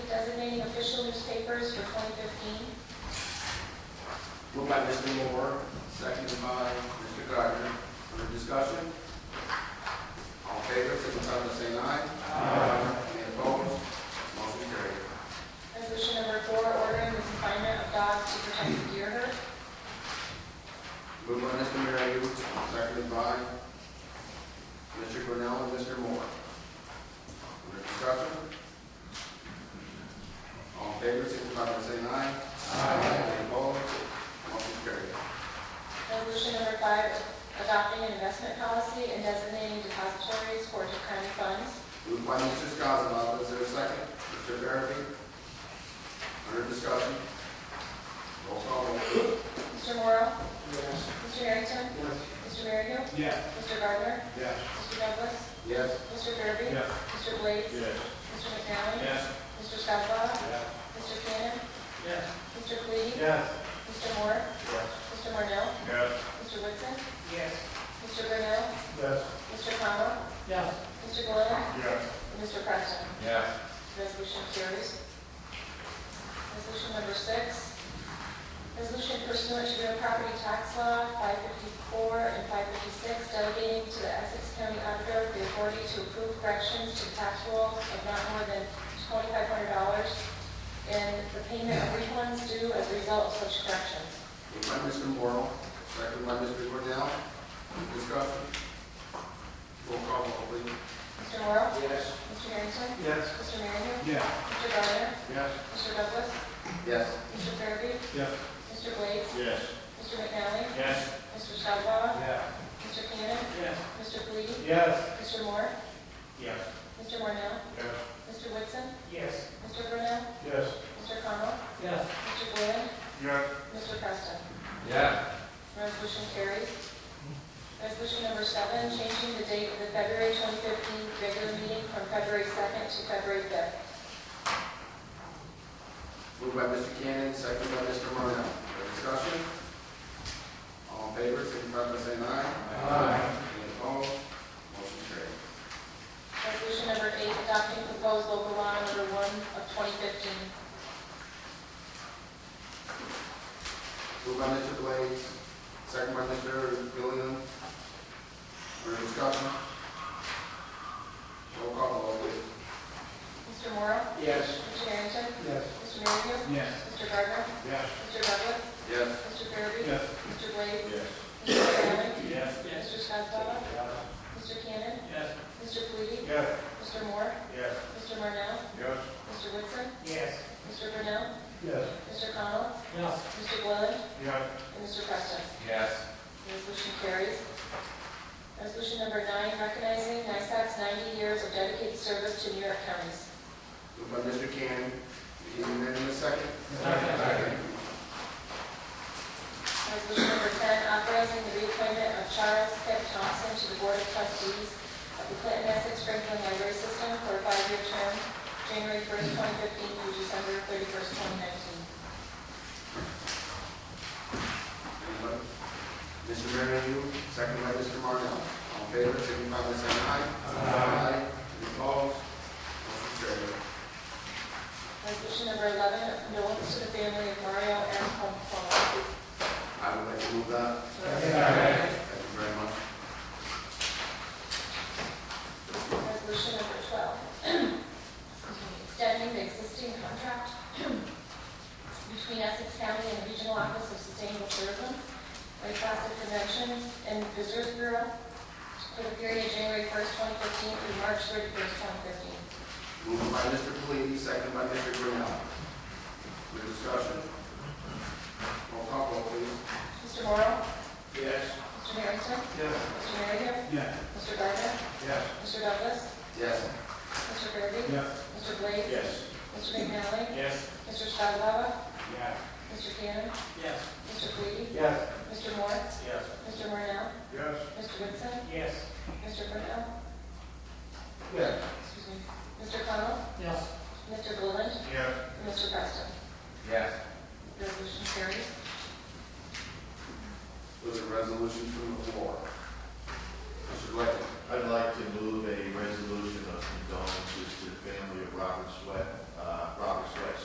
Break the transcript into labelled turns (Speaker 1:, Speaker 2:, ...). Speaker 1: for 2015.
Speaker 2: Moved by Mr. Moore, seconded by Mr. Gardner. Under discussion? All in favor, signify by saying aye. Aye. Any opposed? Motion carried.
Speaker 1: Resolution number four, ordering the confinement of dogs to protect the deer herd.
Speaker 2: Moved by Mr. Marion, seconded by Mr. Grinnell and Mr. Moore. Under discussion? All in favor, signify by saying aye. Aye. Any opposed? Motion carried.
Speaker 1: Resolution number five, adopting an investment policy and designating depositories for declining funds.
Speaker 2: Moved by Mr. Skozavala, is there a second? Mr. Farabee? Under discussion? Roll call, vote.
Speaker 1: Mr. Morrow?
Speaker 3: Yes.
Speaker 1: Mr. Harrington?
Speaker 3: Yes.
Speaker 1: Mr. Merryle?
Speaker 3: Yes.
Speaker 1: Mr. Gardner?
Speaker 3: Yes.
Speaker 1: Mr. Douglas?
Speaker 2: Yes.
Speaker 1: Mr. Derby?
Speaker 3: Yes.
Speaker 1: Mr. Blades?
Speaker 3: Yes.
Speaker 1: Mr. McNally?
Speaker 3: Yes.
Speaker 1: Mr. Scottawa?
Speaker 3: Yes.
Speaker 1: Mr. Cannon?
Speaker 3: Yes.
Speaker 1: Mr. Cleary?
Speaker 3: Yes.
Speaker 1: Mr. Moore? Mr. Marnell?
Speaker 3: Yes.
Speaker 1: Mr. Woodson?
Speaker 3: Yes.
Speaker 1: Mr. Grinnell?
Speaker 3: Yes.
Speaker 1: Mr. Connell?
Speaker 3: Yes.
Speaker 1: Mr. Galais?
Speaker 3: Yes.
Speaker 1: And Mr. Preston?
Speaker 3: Yes.
Speaker 1: Resolution carries. Resolution number six, resolution pursuant to real property tax law 554 and 556, delegating to the Essex County Auditor the authority to approve corrections to tax rolls of not more than $2,500 and the payment of refunds due as a result of such corrections.
Speaker 2: Moved by Mr. Morrow, second by Mr. Cornell. Discussion? Roll call, vote, please.
Speaker 1: Mr. Morrow?
Speaker 3: Yes.
Speaker 1: Mr. Harrington?
Speaker 3: Yes.
Speaker 1: Mr. Marion?
Speaker 3: Yes.
Speaker 1: Mr. Gardner?
Speaker 3: Yes.
Speaker 1: Mr. Douglas?
Speaker 2: Yes.
Speaker 1: Mr. Farabee?
Speaker 3: Yes.
Speaker 1: Mr. Blades?
Speaker 3: Yes.
Speaker 1: Mr. McNally?
Speaker 3: Yes.
Speaker 1: Mr. Scottawa?
Speaker 3: Yeah.
Speaker 1: Mr. Cannon?
Speaker 3: Yes.
Speaker 1: Mr. Flea?
Speaker 3: Yes.
Speaker 1: Mr. Moore?
Speaker 3: Yes.
Speaker 1: Mr. Mornell?
Speaker 3: Yes.
Speaker 1: Mr. Woodson?
Speaker 3: Yes.
Speaker 1: Mr. Brunel?
Speaker 3: Yes.
Speaker 1: Mr. Connell?
Speaker 3: Yes.
Speaker 1: Mr. Glenn?
Speaker 3: Yes.
Speaker 1: Mr. Preston?
Speaker 3: Yeah.
Speaker 1: Resolution carries. Resolution number seven, changing the date of the February 2015 regular meeting from February 2nd to February 5th.
Speaker 2: Moved by Mr. Cannon, second by Mr. Cornell. Under discussion? All in favor, signify by saying aye.
Speaker 3: Aye.
Speaker 2: Any opposed? Motion carried.
Speaker 1: Resolution number eight, adopting proposed local law number one of 2015.
Speaker 2: Moved by Mr. Blades, second by Mr. Gilliam. Under discussion? Roll call, vote, please.
Speaker 1: Mr. Morrow?
Speaker 3: Yes.
Speaker 1: Mr. Harrington?
Speaker 3: Yes.
Speaker 1: Mr. Marion?
Speaker 3: Yes.
Speaker 1: Mr. Gardner?
Speaker 3: Yes.
Speaker 1: Mr. Douglas?
Speaker 2: Yes.
Speaker 1: Mr. Farabee?
Speaker 3: Yes.
Speaker 1: Mr. Blades?
Speaker 3: Yes.
Speaker 1: Mr. Allen?
Speaker 3: Yes.
Speaker 1: Mr. Scottawa? Mr. Cannon?
Speaker 3: Yes.
Speaker 1: Mr. Flea?
Speaker 3: Yes.
Speaker 1: Mr. Moore?
Speaker 3: Yes.
Speaker 1: Mr. Marnell?
Speaker 3: Yes.
Speaker 1: Mr. Woodson?
Speaker 3: Yes.
Speaker 1: Mr. Brunel?
Speaker 3: Yes.
Speaker 1: Mr. Connell?
Speaker 3: Yes.
Speaker 1: Mr. Gilliland?
Speaker 3: Yes.
Speaker 1: And Mr. Preston?
Speaker 3: Yes.
Speaker 1: Resolution carries. Resolution number nine, recognizing NYSEC's 90 years of dedicated service to New York counties.
Speaker 2: Moved by Mr. Cannon, we need a minute and a second.
Speaker 3: Second.
Speaker 1: Resolution number 10, authorizing the reappointment of Charles Pitt Thompson to the Board of Trustees of the Clinton Essex Franklin Library System for a five-year term, January 1st, 2015 through December 31st, 2019.
Speaker 2: Anybody? Mr. Marion, second by Mr. Marnell. All in favor, signify by saying aye. Aye. Any opposed? Motion carried.
Speaker 1: Resolution number 11, condolence to the family of Mario M. Pompono.
Speaker 2: I would like to move that. Thank you very much.
Speaker 1: Resolution number 12, extending the existing contract between Essex County and the Regional Office of Sustainable Tourism, Lake Placid Convention and Visitors Bureau for the period January 1st, 2015 through March 31st, 2015.
Speaker 2: Moved by Mr. Pelisi, second by Mr. Grinnell. Your discussion? Roll call vote, please.
Speaker 1: Mr. Morrow?
Speaker 3: Yes.
Speaker 1: Mr. Harrington?
Speaker 3: Yes.
Speaker 1: Mr. Marion?
Speaker 3: Yes.
Speaker 1: Mr. Gardner?
Speaker 3: Yes.
Speaker 1: Mr. Douglas?
Speaker 2: Yes.
Speaker 1: Mr. Gerby?
Speaker 3: Yes.
Speaker 1: Mr. Blades?
Speaker 3: Yes.
Speaker 1: Mr. McNally?
Speaker 3: Yes.
Speaker 1: Mr. Scottawa?
Speaker 3: Yeah.
Speaker 1: Mr. Cannon?
Speaker 3: Yes.
Speaker 1: Mr. Flea?
Speaker 3: Yes.
Speaker 1: Mr. Moore?
Speaker 3: Yes.
Speaker 1: Mr. Marnell?
Speaker 3: Yes.
Speaker 1: Mr. Woodson?
Speaker 3: Yes.
Speaker 1: Mr. Brunel?
Speaker 3: Yes.
Speaker 1: Excuse me. Mr. Connell?
Speaker 3: Yes.
Speaker 1: Mr. Bullen?
Speaker 3: Yes.
Speaker 1: And Mr. Preston?
Speaker 3: Yes.
Speaker 1: Resolution carries.
Speaker 2: Those are resolutions from the floor. Mr. Blake.
Speaker 4: I'd like to move a resolution of condolences to the family of Robert Sweat, uh, Robert